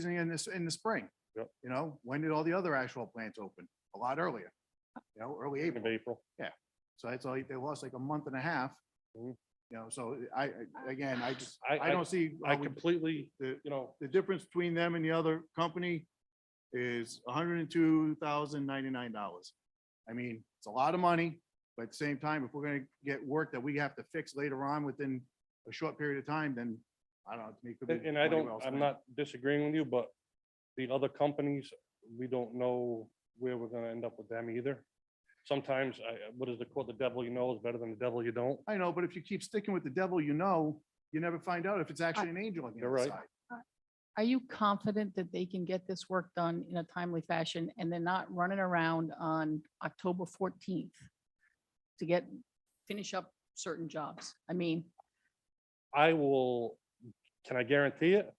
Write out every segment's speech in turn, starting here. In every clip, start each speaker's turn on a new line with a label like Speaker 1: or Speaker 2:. Speaker 1: season in this, in the spring.
Speaker 2: Yep.
Speaker 1: You know, when did all the other asphalt plants open? A lot earlier, you know, early
Speaker 2: end of
Speaker 1: April.
Speaker 2: April.
Speaker 1: So that's all, they lost like a month and a half.
Speaker 2: Mhm.
Speaker 1: You know, so I, I- again, I just,
Speaker 2: I-
Speaker 1: I
Speaker 2: I-
Speaker 1: don't see, how
Speaker 2: I
Speaker 1: we-
Speaker 2: completely,
Speaker 1: the,
Speaker 2: you know,
Speaker 1: the difference between them and the other company is hundred and two thousand ninety-nine dollars. I mean, it's a lot of money, but at the same time, if we're gonna get work that we have to fix later on within a short period of time, then I don't know. to me, it could be
Speaker 2: and and I
Speaker 1: money
Speaker 2: don't,
Speaker 1: well spent.
Speaker 2: I'm not disagreeing with you, but the other companies, we don't know where we're gonna end up with them either. Sometimes I, what is the quote, the devil you know is better than the devil you don't.
Speaker 1: I know, but if you keep sticking with the devil, you know, you never find out if it's actually an angel on the
Speaker 2: You're
Speaker 1: other
Speaker 2: right.
Speaker 1: side.
Speaker 3: Are you confident that they can get this work done in a timely fashion and they're not running around on October fourteenth to get, finish up certain jobs? I mean,
Speaker 2: I will, can I guarantee it?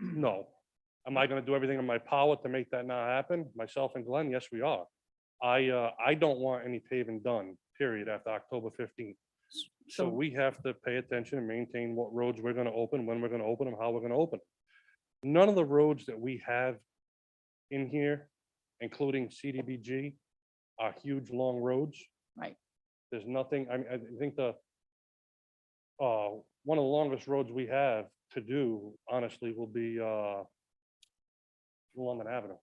Speaker 2: No. Am I gonna do everything in my power to make that not happen? Myself and Glenn, yes, we are. I, uh, I don't want any paving done, period, after October fifteenth. So
Speaker 3: So-
Speaker 2: we have to pay attention and maintain what roads we're gonna open, when we're gonna open them, how we're gonna open. 'em. None of the roads that we have in here, including CDBG, are huge, long roads.
Speaker 3: Right.
Speaker 2: There's nothing, I mean, I think the uh, one of the longest roads we have to do, honestly, will be, uh, London Avenue.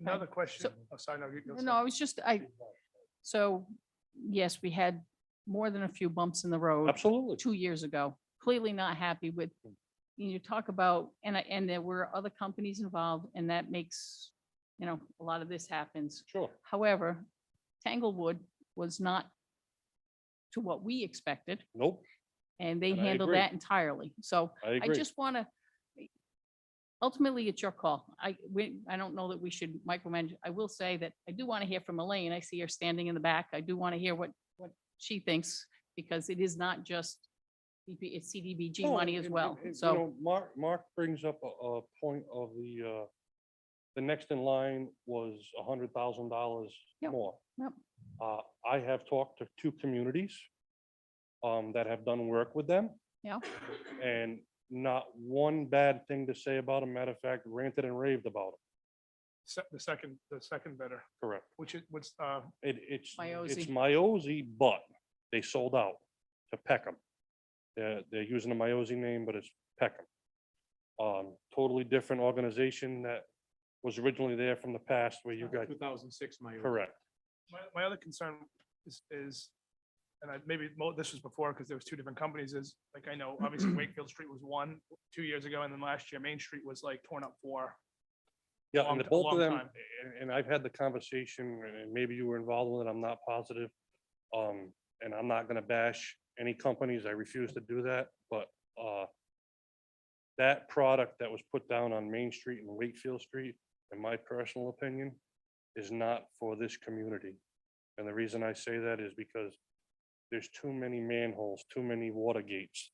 Speaker 4: Another question. Oh, sorry, no, you go.
Speaker 3: no, I was just, I, so, yes, we had more than a few bumps in the road
Speaker 2: Absolutely.
Speaker 3: two years ago. Clearly not happy with, you talk about, and, I- and there were other companies involved and that makes, you know, a lot of this happens.
Speaker 2: Sure.
Speaker 3: However, Tanglewood was not to what we expected,
Speaker 2: Nope,
Speaker 3: and they
Speaker 2: And I
Speaker 3: handled
Speaker 2: agree.
Speaker 3: that entirely. So
Speaker 2: I
Speaker 3: I
Speaker 2: agree.
Speaker 3: just want to, ultimately, it's your call. I, we, I don't know that we should micromanage. I will say that I do want to hear from Elaine. I see her standing in the back. I do want to hear what, what she thinks, because it is not just, CP it's CDBG
Speaker 2: No,
Speaker 3: money
Speaker 2: and-
Speaker 3: as
Speaker 2: and-
Speaker 3: well.
Speaker 2: and, you
Speaker 3: So.
Speaker 2: know, Mark, Mark brings up a, a point of the, uh, the next in line was a hundred thousand dollars
Speaker 3: Yep,
Speaker 2: more.
Speaker 3: yep.
Speaker 2: Uh, I have talked to two communities, um, that have done work with them.
Speaker 3: Yeah.
Speaker 2: And not one bad thing to say about them. Matter of fact, ranted and raved about them.
Speaker 4: Se- The second, the second bidder,
Speaker 2: Correct.
Speaker 4: which is, what's, uh,
Speaker 2: It, it's, it's
Speaker 3: Miozy.
Speaker 2: Miozy, but they sold out to Peckham. They're, they're using the Miozy name, but it's Peckham. Um, totally different organization that was originally there from the past where you got,
Speaker 5: Two thousand six, my.
Speaker 2: correct.
Speaker 4: my, my other concern is, is, and I, maybe mo- this was before, because there was two different companies, is, like, I know, obviously Wakefield Street was one, two years ago, and then last year Main Street was like torn up for.
Speaker 2: Yeah,
Speaker 4: Long
Speaker 2: and the
Speaker 4: ti-
Speaker 2: both of
Speaker 4: long
Speaker 2: them,
Speaker 4: time.
Speaker 2: and, and I've had the conversation, and- and maybe you were involved with it, I'm not positive. Um, and I'm not gonna bash any companies, I refuse to do that, but, uh, that product that was put down on Main Street and Wakefield Street, in my personal opinion, is not for this community. And the reason I say that is because there's too many manholes, too many water gates.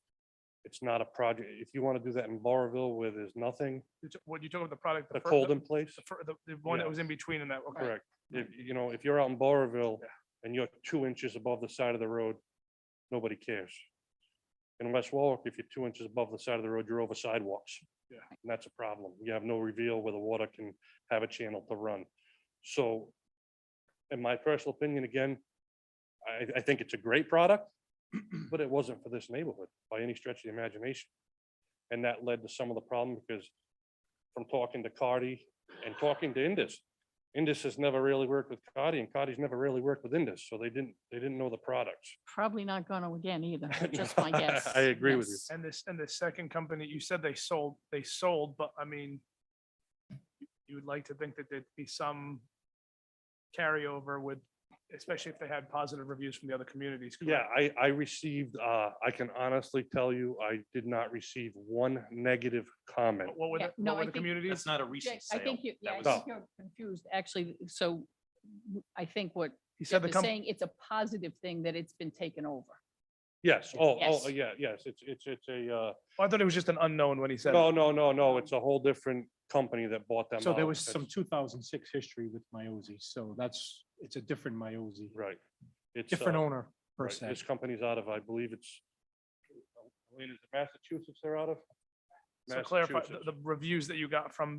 Speaker 2: It's not a project, if you wanna do that in Barville where there's nothing,
Speaker 4: you t- What you talking about the product?
Speaker 2: the
Speaker 4: fir-
Speaker 2: cold in place.
Speaker 4: The, fir- the- the one that
Speaker 2: Yeah.
Speaker 4: was in between and that, okay.
Speaker 2: Correct. If, you know, if you're out in Barville
Speaker 4: Yeah.
Speaker 2: and you're two inches above the side of the road, nobody cares. In West Warwick, if you're two inches above the side of the road, you're over sidewalks.
Speaker 4: Yeah.
Speaker 2: And that's a problem. You have no reveal where the water can have a channel to run. So in my personal opinion, again, I, I think it's a great product, but it wasn't for this neighborhood by any stretch of the imagination. And that led to some of the problem because from talking to Cardi and talking to Indus, Indus has never really worked with Cardi and Cardi's never really worked with Indus, so they didn't, they didn't know the products.
Speaker 3: probably not gonna again either, just my guess.
Speaker 2: I agree with you.
Speaker 3: Yes.
Speaker 4: And this, and the second company, you said they sold, they sold, but I mean, you- you would like to think that there'd be some carryover with, especially if they had positive reviews from the other communities.
Speaker 2: Yeah,
Speaker 4: correct?
Speaker 2: I, I received, uh, I can honestly tell you, I did not receive one negative comment.
Speaker 4: What were
Speaker 3: Yeah,
Speaker 4: the,
Speaker 3: no,
Speaker 4: what
Speaker 3: I
Speaker 4: were the
Speaker 3: think-
Speaker 4: communities?
Speaker 5: That's not a
Speaker 3: Jake,
Speaker 5: recent
Speaker 3: I
Speaker 5: sale.
Speaker 3: think you, yeah,
Speaker 5: That
Speaker 3: I
Speaker 2: was-
Speaker 3: think you're confused, actually, so w- I think what
Speaker 4: He said
Speaker 3: Jeff
Speaker 4: the
Speaker 3: is
Speaker 4: company,
Speaker 3: saying, it's a positive thing that it's been taken over.
Speaker 2: Yes, oh, oh,
Speaker 3: Yes.
Speaker 2: yeah, yes, it's, it's, it's a, uh,
Speaker 4: I thought it was just an unknown when he said. it.
Speaker 2: no, no, no, no, it's a whole different company that bought them
Speaker 5: So there
Speaker 4: Oh,
Speaker 2: out.
Speaker 5: was some
Speaker 2: That's-
Speaker 5: two thousand six history with Miozy, so that's, it's a different Miozy,
Speaker 2: Right. It's,
Speaker 5: different
Speaker 2: uh,
Speaker 5: owner per
Speaker 2: right,
Speaker 5: se.
Speaker 2: This company's out of, I believe it's, Elaine, is it Massachusetts they're out of?
Speaker 6: So clarify, the,
Speaker 7: Massachusetts.
Speaker 6: the reviews that you got from